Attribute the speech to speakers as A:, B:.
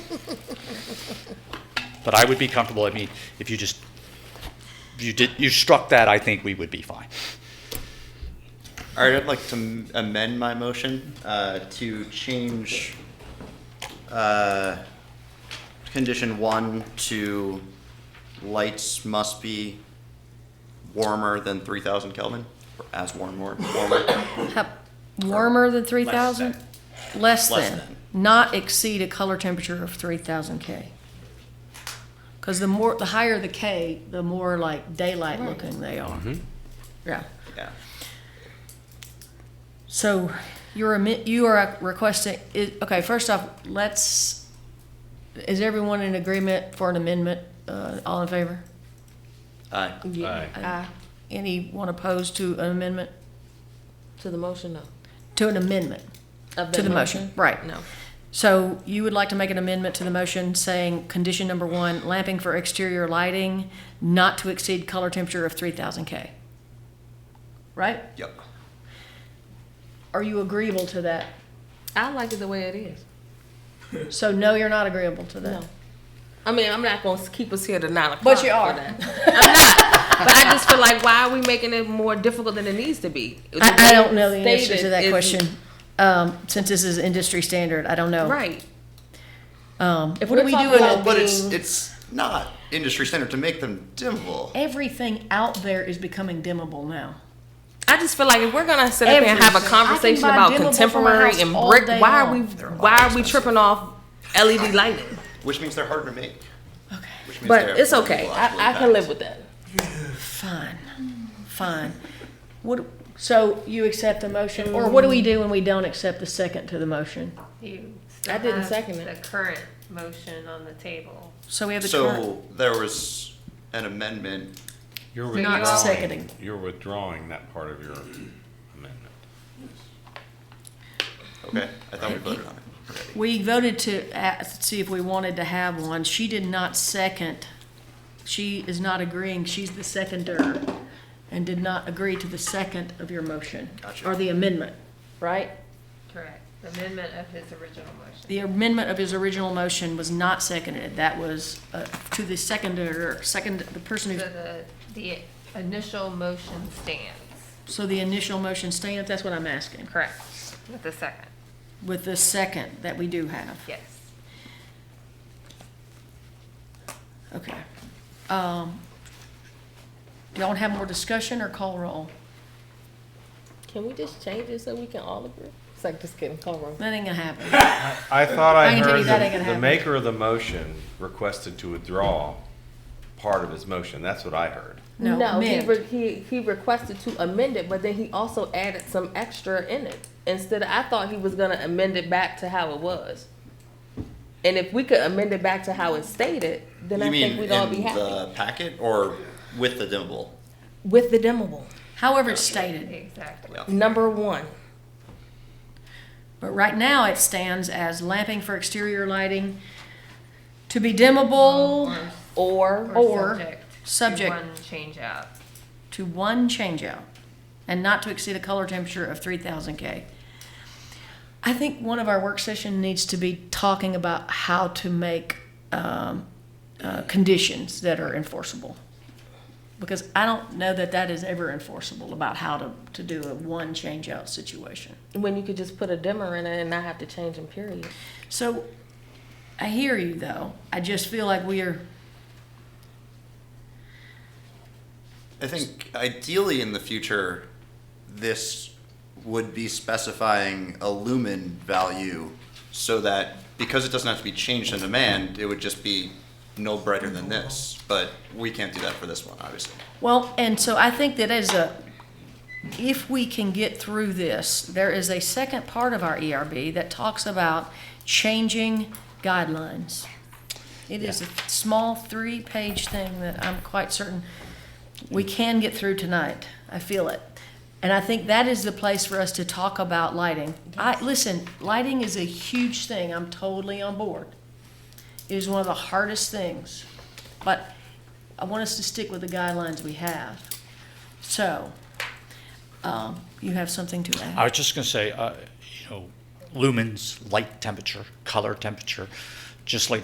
A: But I would be comfortable, I mean, if you just, if you did, you struck that, I think we would be fine.
B: All right, I'd like to m- amend my motion uh, to change uh, condition one to lights must be warmer than 3,000 Kelvin, or as warm, or warmer.
C: How- Warmer than three thousand? Less
B: Less
C: than,
B: than.
C: not exceed a color temperature of three thousand K. Cause the more, the higher the K, the more like daylight looking they are. Yeah,
B: Yeah.
C: so you're, admi- you are requesting, i okay, first off, let's, is everyone in agreement for an amendment? Uh, all in favor?
B: Aye.
D: Aye.
C: Aye. Anyone opposed to an amendment?
D: To the motion, no.
C: To an amendment?
D: Of
C: To the motion, right.
D: No.
C: So you would like to make an amendment to the motion saying, condition number one, lamping for exterior lighting not to exceed color temperature of three thousand K. Right?
B: Yep.
C: Are you agreeable to that?
D: I like it the way it is.
C: So no, you're not agreeable to
D: No.
C: that.
D: I mean, I'm not gonna keep us here to nine o'clock.
C: But you
D: for
C: are.
D: that. I'm not. But I just feel like, why are we making it more difficult than it needs to be? The
C: I, I
D: way
C: don't know the
D: it's
C: answer to
D: stated
C: that
D: is-
C: question. Um, since this is industry standard, I don't know.
D: Right.
C: Um,
D: If
C: what do
D: we're
C: we
D: talking
C: do in
D: about-
C: a-
B: But it's,
D: Being-
B: it's not industry standard to make them dimmable.
C: everything out there is becoming dimmable now.
D: I just feel like if we're gonna sit up here and have
C: Everything.
D: a
C: I can
D: conversation
C: buy
D: about
C: dimmable for my
D: contemporary
C: house
D: and
C: all
D: brick,
C: day
D: why are
C: long.
D: we,
B: They're a lot
D: why are we
B: expensive.
D: tripping off LED lighting?
B: Which means they're harder to make. Which means
D: But
B: they're
D: it's okay.
B: actually
D: I, I can
B: bad.
D: live with that.
C: Fine, fine. What, so you accept the motion, or what do we do when we don't accept the second to the motion?
E: You still
D: I didn't
E: have
D: second it.
E: The current motion on the table.
C: So we have the current,
B: So there was an amendment.
F: You're
E: So you're-
C: not
E: withdrawing.
C: seconding.
F: You're withdrawing that part of your amendment.
B: Okay, I thought we voted on it.
C: We voted to ask, see if we wanted to have one. She did not second. She is not agreeing. She's the seconder and did not agree to the second of your motion.
B: Gotcha.
C: Or the amendment, right?
E: Correct. Amendment of his original motion.
C: The amendment of his original motion was not seconded. That was, uh, to the seconder, second, the person
E: So
C: who,
E: the, the initial motion stands.
C: so the initial motion stands. That's what I'm asking.
E: Correct. With the second,
C: with the second that we do have.
E: yes.
C: Okay. Um, do y'all want to have more discussion or call roll?
D: Can we just change it so we can all agree? It's like, just kidding, call wrong.
C: That ain't gonna happen.
F: I thought
C: I
F: I
C: can tell you
F: heard
C: that ain't gonna
F: the, the
C: happen.
F: maker of the motion requested to withdraw part of his motion. That's what I heard.
C: No,
D: he,
C: amend.
D: re- he he requested to amend it, but then he also added some extra in it. Instead, of, I thought he was gonna amend it back to how it was. And if we could amend it back to how it stated, then I
B: You mean
D: think we'd all
B: in
D: be happy
B: the packet or with the dimmable?
D: with the dimmable
C: However it's stated,
E: Exactly.
B: Yeah.
D: number one.
C: but right now it stands as lamping for exterior lighting to be dimmable
D: Or
C: Or
E: subject to
C: subject-
E: One change out.
C: to one changeout and not to exceed a color temperature of three thousand K. I think one of our work session needs to be talking about how to make, um, uh, conditions that are enforceable. Because I don't know that that is ever enforceable about how to, to do a one changeout situation.
D: when you could just put a dimmer in it and not have to change them. Period.
C: So, I hear you though. I just feel like we are,
B: I think ideally in the future, this would be specifying a lumen value so that because it doesn't have to be changed in demand, it would just be no brighter than this. But we can't do that for this one, obviously.
C: well, and so I think that as a, if we can get through this, there is a second part of our ERB that talks about changing guidelines. It is a small three-page thing that I'm quite certain we can get through tonight. I feel it. And I think that is the place for us to talk about lighting. I, listen, lighting is a huge thing. I'm totally on board. It is one of the hardest things. But I want us to stick with the guidelines we have. So, um, you have something to add?
A: I was just going to say, uh, you know, lumens, light temperature, color temperature, just like